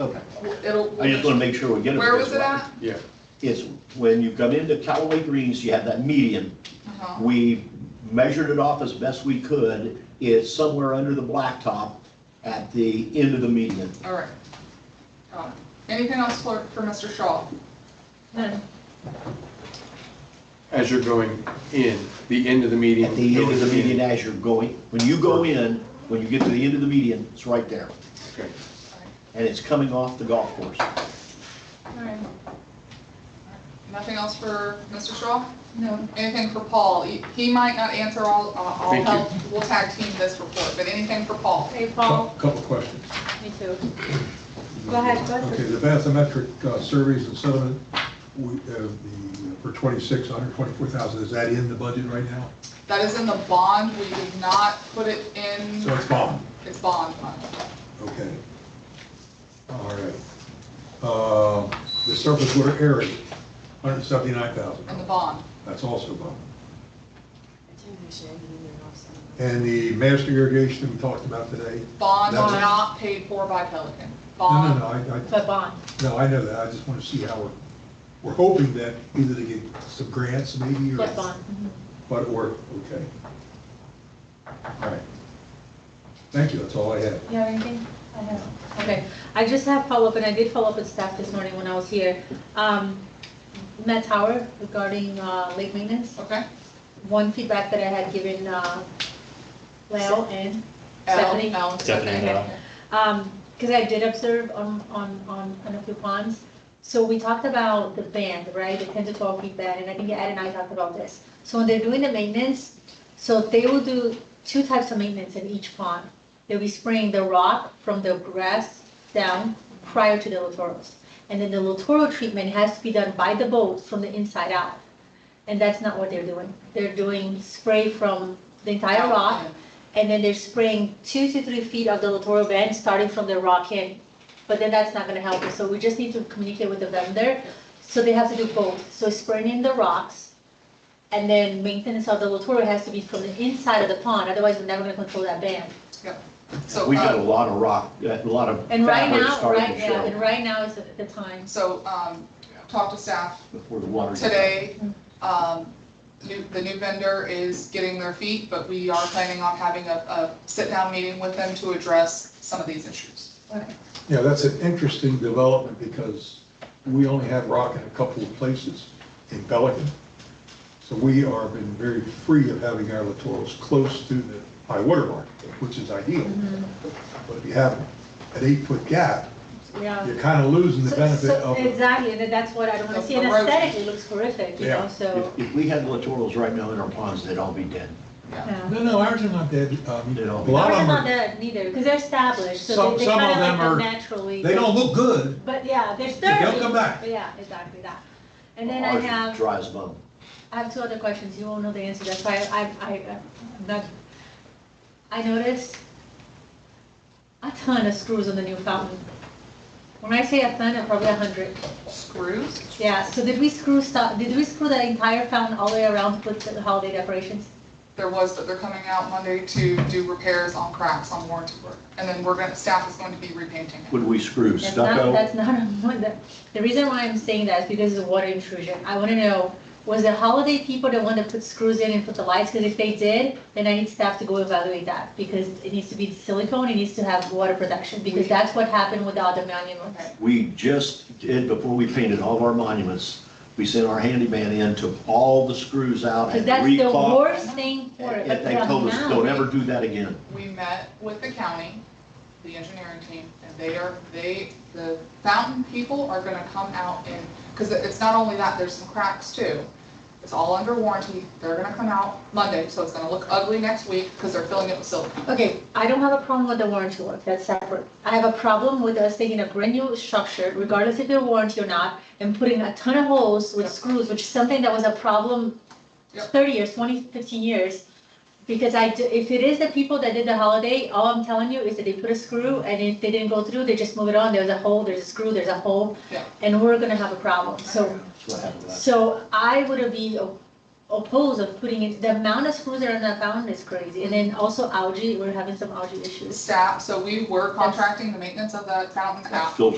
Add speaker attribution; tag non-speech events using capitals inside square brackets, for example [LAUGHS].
Speaker 1: Okay,
Speaker 2: It'll.
Speaker 1: I just wanna make sure we get it.
Speaker 2: Where
Speaker 1: this
Speaker 2: was it
Speaker 1: way.
Speaker 2: at?
Speaker 3: Yeah,
Speaker 1: It's when you come into Callaway Greens, you have that median.
Speaker 2: Uh-huh.
Speaker 1: We measured it off as best we could. It's somewhere under the blacktop at the end of the median.
Speaker 2: All right. Got it. Anything else for, for Mr. Shaw?
Speaker 3: as you're going in, the end of the median.
Speaker 1: At the end of the
Speaker 3: going in.
Speaker 1: median as you're going, when you go in, when you get to the end of the median, it's right there.
Speaker 3: Okay.
Speaker 1: And it's coming off the golf course.
Speaker 2: All right. Nothing else for Mr. Shaw? No. Anything for Paul? He he might not answer all, uh, I'll
Speaker 3: Thank you.
Speaker 2: help, we'll tag team this report, but anything for Paul?
Speaker 4: Hey,
Speaker 5: Cou-
Speaker 4: Paul,
Speaker 5: Couple questions.
Speaker 4: me too. Go ahead, go
Speaker 5: Okay,
Speaker 4: ahead.
Speaker 5: the bathymetric uh, surveys and settlement, we, uh, the, for 26, 124,000, is that in the budget right now?
Speaker 2: That is in the bond, we did not put it
Speaker 4: Mm-hmm.
Speaker 2: in,
Speaker 5: So it's gone,
Speaker 2: it's bond fund.
Speaker 5: okay. All right. Uh, The surface water area, 179,000,
Speaker 2: in the bond.
Speaker 5: that's also gone. And the master irrigation we talked about today?
Speaker 2: Bond
Speaker 5: That's-
Speaker 2: not paid for by Pelican.
Speaker 5: No, no, no,
Speaker 2: Bond,
Speaker 5: I, I.
Speaker 4: The bond.
Speaker 5: No, I know that, I just want to see how we're, we're hoping that either to get some grants maybe or.
Speaker 4: Flip bond.
Speaker 5: But, or, okay. All right. Thank you, that's all I have.
Speaker 4: You have anything? I have. Okay, I just have follow-up, and I did follow up with staff this morning when I was here. Um, Matt Tower regarding uh, lake maintenance,
Speaker 2: okay?
Speaker 4: one feedback that I had given uh, Leo and Stephanie.
Speaker 2: L, L.
Speaker 6: Stephanie and L.
Speaker 4: because I did observe on, on, on on a few ponds. So we talked about the band, right, the ten to twelve feet band, and I think Ed and I talked about this. So when they're doing the maintenance, so they will do two types of maintenance in each pond. They'll be spraying the rock from the grass down prior to the littorals. And then the littoral treatment has to be done by the boat from the inside out. And that's not what they're doing. They're doing spray from the entire rock and then they're spraying two to three feet of the littoral band, starting from the rock in. But then that's not gonna help us, so we just need to communicate with the vendor, so they have to do both, so spraying in the rocks, and then maintenance of the littoral has to be from the inside of the pond, otherwise we're never gonna control that band.
Speaker 2: So,
Speaker 1: We got a
Speaker 2: uh,
Speaker 1: lot of rock, a lot of
Speaker 4: And right
Speaker 1: fabric
Speaker 4: now,
Speaker 1: starting
Speaker 4: right
Speaker 1: to
Speaker 4: now, and
Speaker 1: show
Speaker 4: right now is the the time,
Speaker 2: so, um, talk to staff
Speaker 1: before the water. gets up.
Speaker 2: today. Um, new- the new vendor is getting their feet, but we are planning on having a, a sit-down meeting with them to address some of these issues.
Speaker 5: Yeah, that's an interesting development because we only have rock in a couple of places in Pelican. So we are been very free of having our littorals close to the high water mark, which is ideal.
Speaker 4: Mm-hmm.
Speaker 5: But if you have an eight-foot gap,
Speaker 4: yeah.
Speaker 5: you're kind of losing the
Speaker 4: So-
Speaker 5: benefit
Speaker 4: so- uh,
Speaker 5: of.
Speaker 4: Exactly, and that's what I don't wanna
Speaker 2: Of
Speaker 4: see, and
Speaker 2: the road.
Speaker 4: aesthetically, it looks horrific, you
Speaker 5: Yeah.
Speaker 4: know, so,
Speaker 1: If, if we had littorals right now in our ponds, they'd all be dead.
Speaker 2: Yeah.
Speaker 4: yeah.
Speaker 5: No, no, ours are not dead. Um,
Speaker 1: They're
Speaker 5: A
Speaker 1: all-
Speaker 5: lot
Speaker 4: Ours
Speaker 5: of
Speaker 4: are
Speaker 5: them
Speaker 4: not
Speaker 5: are,
Speaker 4: that neither, because they're established, so
Speaker 5: Some-
Speaker 4: they- they
Speaker 5: some of
Speaker 4: kind of like
Speaker 5: them
Speaker 4: come
Speaker 5: are-
Speaker 4: naturally.
Speaker 5: they don't look good.
Speaker 4: But yeah, there's
Speaker 5: But
Speaker 4: thirty.
Speaker 5: they'll come back.
Speaker 4: But Yeah, exactly that. And then I
Speaker 1: Ours are
Speaker 4: have,
Speaker 1: Dry as a bone.
Speaker 4: I have two other questions, you won't know the answer, that's why I, I, I'm not. I noticed a ton of screws on the new fountain. When I say a ton, I'm probably a hundred,
Speaker 2: Screws?
Speaker 4: yeah, so did we screw stuff, did we screw the entire fountain all the way around to put the holiday decorations?
Speaker 2: There was, but they're coming out Monday to do repairs on cracks on warranty work. And then we're gonna, staff is going to be repainting it.
Speaker 1: Would we screw
Speaker 4: That's not,
Speaker 1: stucco?
Speaker 4: that's not, [LAUGHS] a one that- the reason why I'm saying that is because of the water intrusion. I want to know, was the holiday people the one that put screws in and put the lights? Because if they did, then I need staff to go evaluate that because it needs to be silicone, it needs to have water protection because that's what happened with the other monuments.
Speaker 2: Okay.
Speaker 1: We just did, before we painted all of our monuments, we sent our handyman in, took all the screws out
Speaker 4: Because
Speaker 1: and
Speaker 4: that's the
Speaker 1: re-caulked.
Speaker 4: worst thing for it.
Speaker 1: And they
Speaker 4: But
Speaker 1: told us,
Speaker 4: now-
Speaker 1: don't ever do that again.
Speaker 2: We met with the county, the engineering team, and they are, they, the fountain people are gonna come out and, because it's not only that, there's some cracks too. It's all under warranty. They're gonna come out Monday, so it's gonna look ugly next week because they're filling it with silicone.
Speaker 4: Okay, I don't have a problem with the warranty work, that's separate. I have a problem with us taking a brand new structure, regardless if it's warranty or not, and putting a ton of holes with
Speaker 2: Yep.
Speaker 4: screws, which is something that was a problem
Speaker 2: Yep.
Speaker 4: thirty years, 20, 15 years. Because I, do- if it is the people that did the holiday, all I'm telling you is that they put a screw, and if they didn't go through, they just move it on, there's a hole, there's a screw, there's a hole,
Speaker 2: Yeah.
Speaker 4: and we're gonna have a problem, so
Speaker 1: That's what happened last.
Speaker 4: so I would be o- opposed of putting it, the amount of screws that are in that fountain is crazy, and then also algae, we're having some algae issues.
Speaker 2: Staff, so we were contracting the maintenance of that fountain out.
Speaker 1: Filter